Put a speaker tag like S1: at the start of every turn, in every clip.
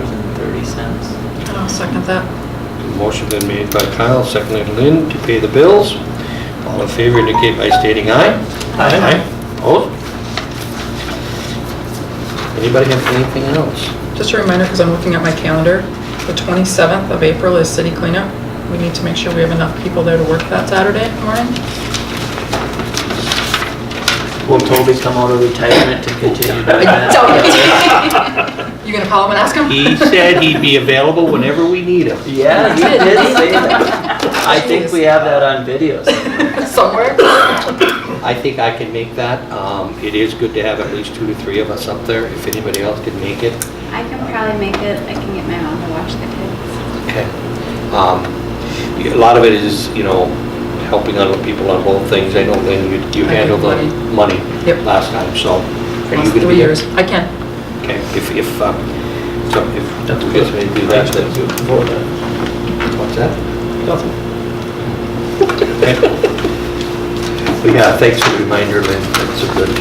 S1: $994.30.
S2: I'll second that.
S3: Motion been made by Kyle, seconded Lynn to pay the bills. All in favor indicate by stating aye.
S1: Aye.
S3: Opposed? Anybody have anything else?
S2: Just a reminder, because I'm looking at my calendar, the 27th of April is city cleanup. We need to make sure we have enough people there to work that Saturday morning.
S1: Will Toby come out of retirement to continue doing that?
S2: You gonna call him and ask him?
S3: He said he'd be available whenever we need him.
S1: Yeah, you did say that. I think we have that on video somewhere.
S2: Somewhere?
S3: I think I can make that. Um, It is good to have at least two to three of us up there, if anybody else can make it.
S4: I can probably make it, I can get my mom to watch the kids.
S3: Okay. Um, A lot of it is, you know, helping out people on both things. I know Lynn, you you
S2: I think
S3: handled the money
S2: Yep.
S3: last time, so. are you
S2: Last
S3: gonna
S2: three
S3: be-
S2: years. I can.
S3: Okay, if, if, um, so if that's okay, so maybe do that, then do it before that. What's that? Nothing. But yeah, thanks for the reminder, Lynn, that's a good,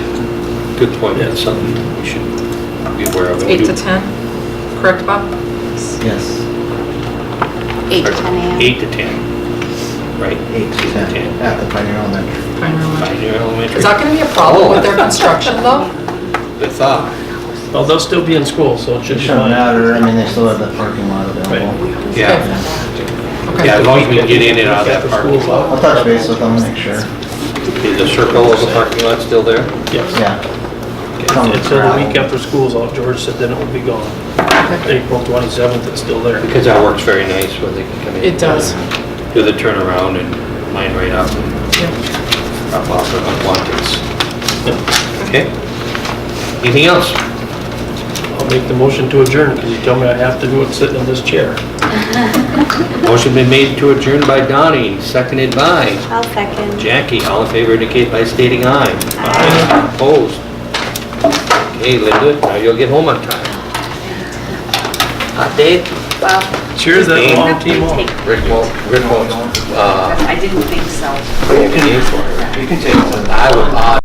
S3: good point, that's something we should be aware of.
S2: Eight to 10, correct, Bob?
S1: Yes.
S4: Eight to 10 a.m.
S3: Eight to ten, right?
S5: Eight to ten at the Pioneer Elementary.
S2: Fine, Roland.
S3: Pioneer Elementary.
S2: Is that gonna be a problem with their construction, though?
S3: The thought,
S6: Well, they'll still be in school, so it should
S5: It
S6: be
S5: shouldn't
S6: fine.
S5: matter, I mean, they still have the parking lot available.
S3: yeah,
S2: Okay.
S3: yeah, as long as we can get in and out of
S6: After
S3: that parking
S6: school's
S3: lot.
S6: out.
S5: I'll touch base with them, make sure.
S3: Is the circle of the parking lot still there?
S6: Yes.
S5: Yeah, Some
S6: It's the
S5: gravel.
S6: week after school's out, George said then it will be gone.
S2: Okay.
S6: April 27th, it's still there.
S3: Because that works very nice when they can come in.
S2: It does.
S3: Do the turnaround and line right up and
S2: Yeah.
S3: drop off their unwanteds.
S6: Yeah.
S3: Okay? Anything else?
S6: I'll make the motion to adjourn, because you tell me I have to do it sitting in this chair.
S3: Motion been made to adjourn by Donnie, seconded by
S4: I'll second.
S3: Jackie. All in favor indicate by stating aye. Aye. Opposed? Okay, Linda, now you'll get home on time. Hot date?
S4: Well,
S6: Cheers, that long
S4: we
S6: team on.
S4: take-
S3: Rick won't, Rick won't, uh,
S4: I didn't think so.
S3: pay for it.
S5: you can take it.
S3: I would,